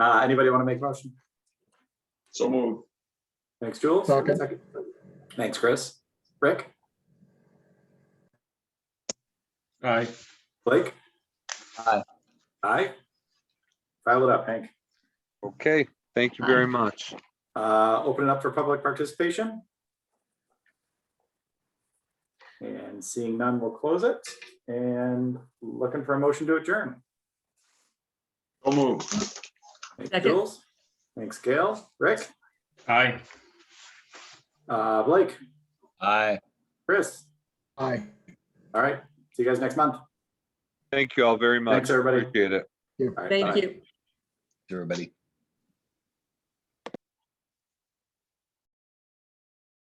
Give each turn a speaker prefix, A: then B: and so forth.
A: Uh, anybody want to make a motion?
B: So move.
A: Thanks, Jules.
C: Second.
A: Thanks, Chris. Rick,
D: Aye.
A: Blake?
E: Aye.
A: Aye. File it up, Hank.
F: Okay, thank you very much.
A: Uh, open it up for public participation. And seeing none, we'll close it and looking for a motion to adjourn.
B: So move.
A: Thanks,
G: Second.
A: Jules. Thanks, Gail. Rick,
D: Aye.
A: uh, Blake,
E: Aye.
A: Chris.
C: Aye.
A: All right. See you guys next month.
F: Thank you all very much.
A: Thanks, everybody.
F: Appreciate it.
A: All right, bye.
G: Thank you.
E: Everybody.